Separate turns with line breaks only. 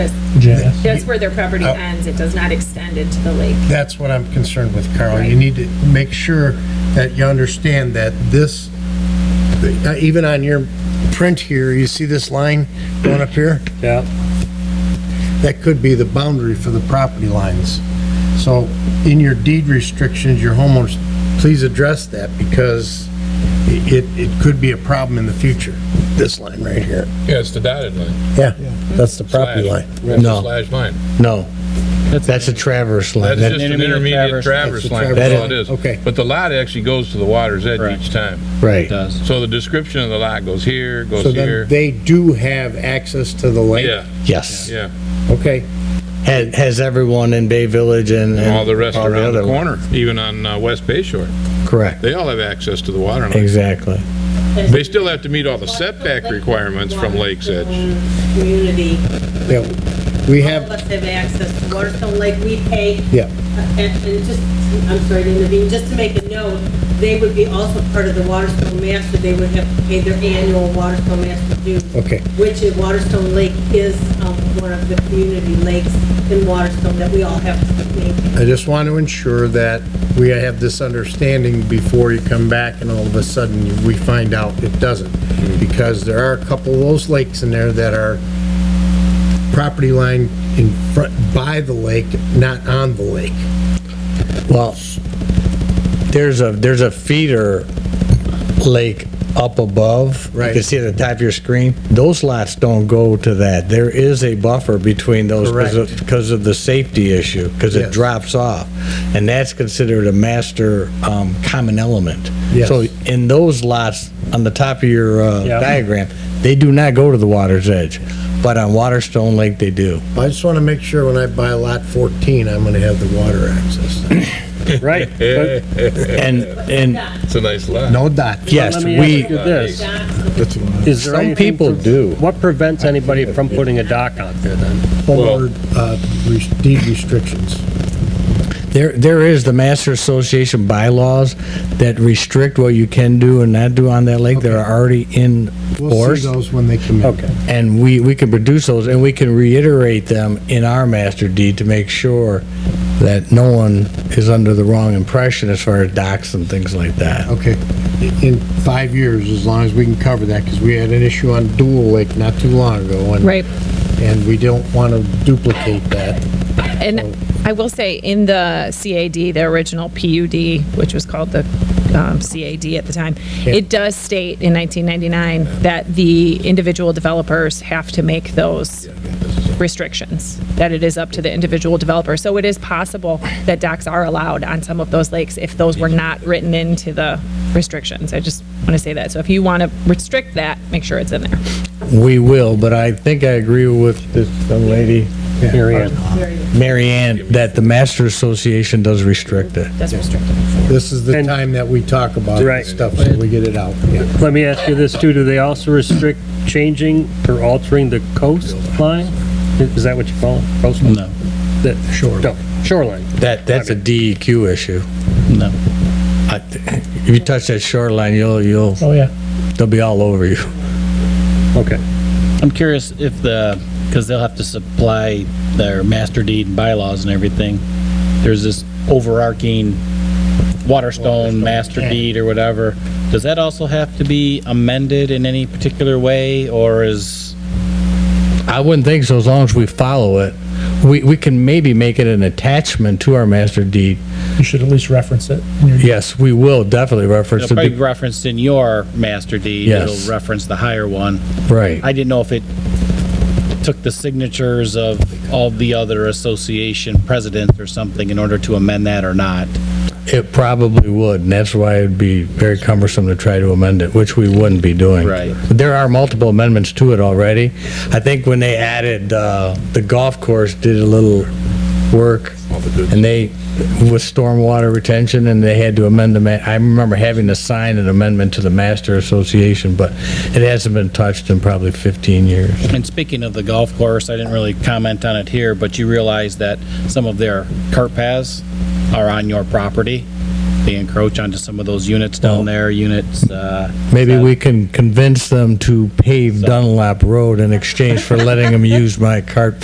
Jan.
That's where their property
Uh,
ends, it does not extend into the lake.
That's what I'm concerned with, Carl. You need to make sure that you understand that this, uh, even on your print here, you see this line going up here?
Yeah.
That could be the boundary for the property lines. So in your deed restrictions, your homeowners, please address that because it, it could be a problem in the future, this line right here.
Yeah, it's the dotted line.
Yeah, that's the property
Slash.
line.
It's a
No,
Slash line.
no. That's a traverse line.
That's
That-
just an
intermediate
intermediate
traverse.
traverse
That's a
line,
traverse
that's all
line.
it is.
Okay.
But the lot actually goes to the water's edge
Right.
each time.
Right.
It does.
So the description of the lot goes here,
So
goes
then
here.
they do have access to the lake?
Yeah,
Yes.
yeah.
Okay,
Has, has everyone in Bay Village and.
And
and
all the rest around the
other-
corner, even on uh, West Bay Shore,
Correct.
they all have access to the water line.
Exactly.
They still have to meet all the setback requirements from Lake's Edge.
Community,
yeah, we
all of
have,
us have access to water, so like we pay.
Yeah.
And and just, I'm sorry, to intervene, just to make a note, they would be also part of the Waterstone Master, they would have to pay their annual Waterstone Master dues.
Okay.
Which is Waterstone Lake is um, one of the community lakes in Waterstone that we all have to maintain.
I just want to ensure that we have this understanding before you come back and all of a sudden you- we find out it doesn't. Because there are a couple of those lakes in there that are property line in front, by the lake, not on the lake.
Well, there's a, there's a feeder lake up above.
Right.
You can see it at the top of your screen. Those lots don't go to that. There is a buffer between those because of, because of the safety issue, because it
Yes.
drops off. And that's considered a master, um, common element.
Yes.
So in those lots, on the top of your, uh,
Yeah.
diagram, they do not go to the water's edge. But on Waterstone Lake, they do.
I just want to make sure when I buy lot 14, I'm going to have the water access.
Right. But
And, and,
It's a nice lot.
No dot.
yes,
let me ask
we,
you this. Is
Some
there anything
people
pre-
do.
What prevents anybody from putting a dock out there then?
Homeowner, uh, res- deed restrictions.
There, there is the Master Association bylaws that restrict what you can do and not do on that lake. They're already in
We'll see
force.
those when they come in.
Okay.
And we, we can produce those and we can reiterate them in our master deed to make sure that no one is under the wrong impression as far as docks and things like that.
Okay, in five years, as long as we can cover that, because we had an issue on Dual Lake not too long ago, and.
Right.
And we don't want to duplicate that.
And I will say, in the CAD, the original PUD, which was called the um, CAD at the time, it does state in 1999 that the individual developers have to make those restrictions, that it is up to the individual developer. So it is possible that docks are allowed on some of those lakes if those were not written into the restrictions. I just want to say that. So if you want to restrict that, make sure it's in there.
We will, but I think I agree with this young lady,
Mary Ann?
Mary Ann, that the Master Association does restrict it.
That's restricted.
This is the
And-
time that we talk about
Right.
this stuff, so we get it out. Yeah.
Let me ask you this too, do they also restrict changing or altering the coastline? Is that what you call it, coastline?
No.
The-
Shoreline.
no, Shoreline.
That, that's a DEQ issue.
No.
I th- If you touch that shoreline, you'll, you'll,
Oh, yeah.
they'll be all over you.
Okay.
I'm curious if the, because they'll have to supply their master deed and bylaws and everything. There's this overarching Waterstone master deed or whatever. Does that also have to be amended in any particular way or is,
I wouldn't think so, as long as we follow it. We, we can maybe make it an attachment to our master deed.
you should at least reference it.
Yes, we will definitely reference
It'll probably be
it.
referenced in your master deed.
Yes.
It'll reference the higher one. I
Right,
didn't know if it took the signatures of all the other association presidents or something in order to amend that or not.
it probably would, and that's why it'd be very cumbersome to try to amend it, which we wouldn't be doing.
Right.
There are multiple amendments to it already. I think when they added, uh, the golf course did a little work, and they, with stormwater retention, and they had to amend the, ma- I remember having to sign an amendment to the master association, but it hasn't been touched in probably 15 years.
And speaking of the golf course, I didn't really comment on it here, but you realize that some of their cart paths are on your property. They encroach onto some of those units down there, units, uh,
Maybe we can convince them to pave Dunlap Road in exchange for letting them use my cart